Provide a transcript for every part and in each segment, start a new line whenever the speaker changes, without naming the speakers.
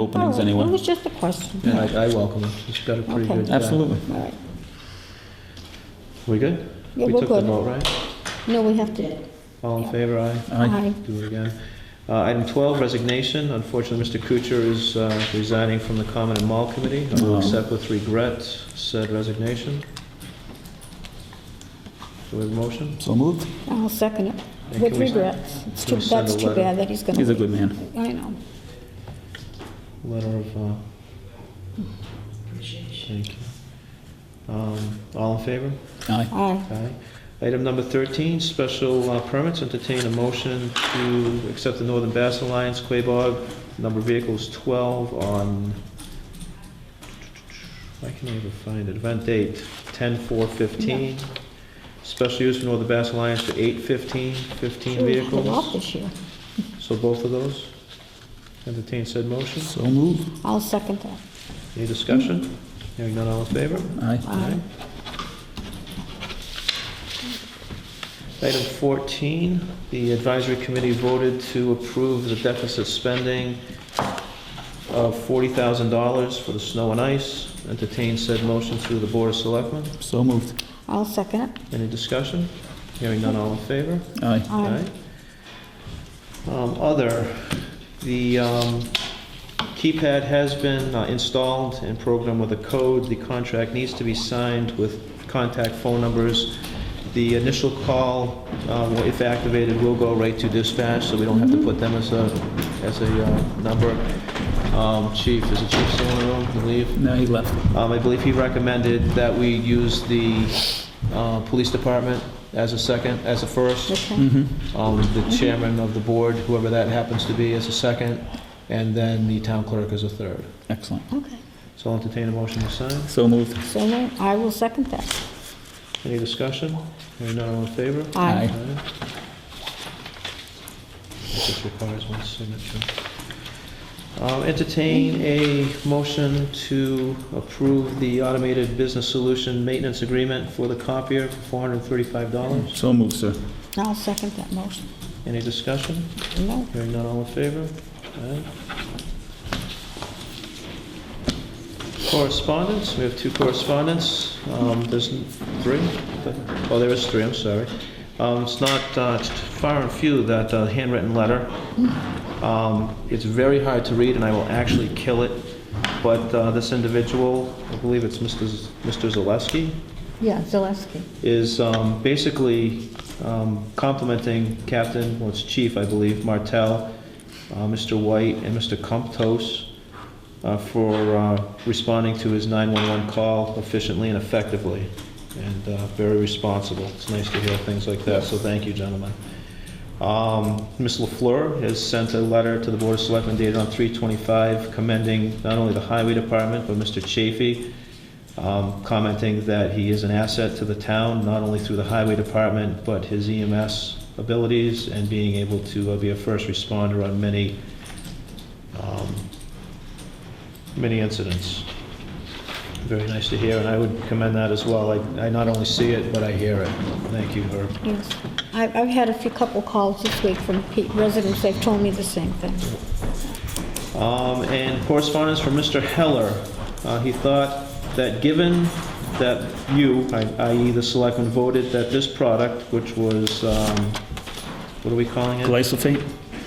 openings
Oh, It
anyway.
was just a question.
I, I welcome her. She's got a pretty
Okay.
good. uh,
Absolutely.
All right.
We good?
Yeah,
We
we're
took the
good.
vote, right?
No, we have to,
All in favor, aye?
Aye.
aye.
Do it again. Uh, Item 12, resignation. Unfortunately, Mr. Kuchar is uh, resigning from the Common and Mall Committee. I will
Oh.
accept with regret said resignation. Do we have a motion?
So moved.
I'll second it.
And
With
can we-
regrets. It's
can
too,
we send
that's
a
too
letter?
bad that he's gonna.
He's a
leave.
good man.
I know.
Letter of, uh, thank you. Um, All in favor?
Aye.
Aye.
Aye. Item number 13, special uh, permits, entertain a motion to accept the Northern Bass Alliance, Quabog, number of vehicles 12 on, I can never find it, event date, 10/4/15. Special use for Northern Bass Alliance for 8/15, 15
Sure, we had it off
vehicles.
this year.
So both of those, entertain said motion.
So moved.
I'll second that.
Any discussion? Hearing none, all in favor?
Aye.
Aye.
Item 14, the advisory committee voted to approve the deficit spending of $40,000 for the snow and ice. Entertain said motion through the Board of Selectmen.
So moved.
I'll second it.
Any discussion? Hearing none, all in favor?
Aye.
Aye.
Um, Other, the um, keypad has been uh, installed and programmed with a code. The contract needs to be signed with contact phone numbers. The initial call, um, if activated, will go right to dispatch, so we don't have to put them as a, as a uh, number. Um, Chief, is the chief still in the room, I believe?
Now he left.
Um, I believe he recommended that we use the uh, police department as a second, as a first,
Okay.
Mm-hmm.
um, the chairman of the board, whoever that happens to be, as a second, and then the town clerk as a third.
Excellent.
Okay.
So I'll entertain a motion to sign.
So moved.
So then I will second that.
Any discussion? Hearing none, all in favor?
Aye.
Aye. This requires one signature. Um, Entertain a motion to approve the automated business solution maintenance agreement for the copier for $435.
So moved, sir.
I'll second that motion.
Any discussion?
No,
Hearing none, all in favor? Aye. Correspondence, we have two correspondence. Um, There's n- three? Oh, there is three, I'm sorry. Um, It's not uh, it's far and few, that uh, handwritten letter. Um, It's very hard to read, and I will actually kill it, but uh, this individual, I believe it's Mr. Z- Mr. Zaleski,
yeah, Zaleski.
is um, basically um, complimenting Captain, well, it's Chief, I believe, Martell, uh, Mr. White, and Mr. Comptos uh, for uh, responding to his 911 call efficiently and effectively, and uh, very responsible. It's nice to hear things like that, so thank you, gentlemen. Um, Ms. LaFleur has sent a letter to the Board of Selectmen dated on 325 commending not only the Highway Department, but Mr. Chafee, um, commenting that he is an asset to the town, not only through the Highway Department, but his EMS abilities and being able to uh, be a first responder on many, um, many incidents. Very nice to hear, and I would commend that as well. I I not only see it, but I hear it. Thank you, Herb.
Yes. I- I've had a few couple calls this week from pe- residents, they've told me the same thing.
Um, And correspondence from Mr. Heller. Uh, He thought that given that you, I- i.e. the selectmen, voted that this product, which was, um, what are we calling it?
Glyphosate?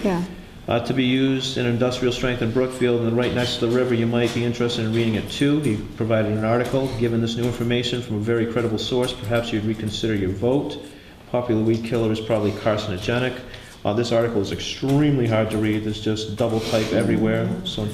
Yeah,
Uh, To be used in industrial strength in Brookfield and right next to the river, you might be interested in reading it too. He provided an article. Given this new information from a very credible source, perhaps you'd reconsider your vote. Popular weed killer is probably carcinogenic. Uh, This article is extremely hard to read. There's just double type everywhere, so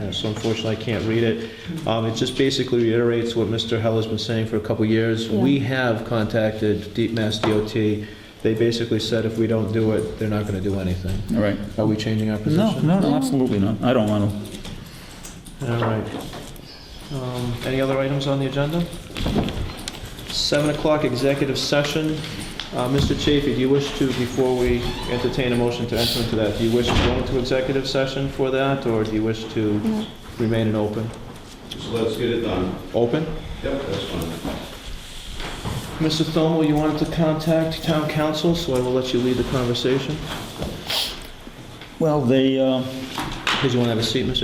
yeah, so unfortunately, I can't read it. Um, It just basically reiterates what Mr. Heller's been saying for a couple years.
Yeah.
We have contacted Deep Mass DOT. They basically said if we don't do it, they're not going to do anything.
All right.
Are we changing our
No,
position?
no, no, absolutely not. I don't want to.
All right. Um, Any other items on the agenda? 7 o'clock executive session. Uh, Mr. Chafee, do you wish to, before we entertain a motion to enter into that, do you wish to go into executive session for that, or do you wish to
no,
remain in open?
So let's get it done.
Open?
Yep, that's fine.
Mr. Thomo, you wanted to contact town council, so I will let you lead the conversation.
Well, they, uh,
Did you want to have a seat, Mr.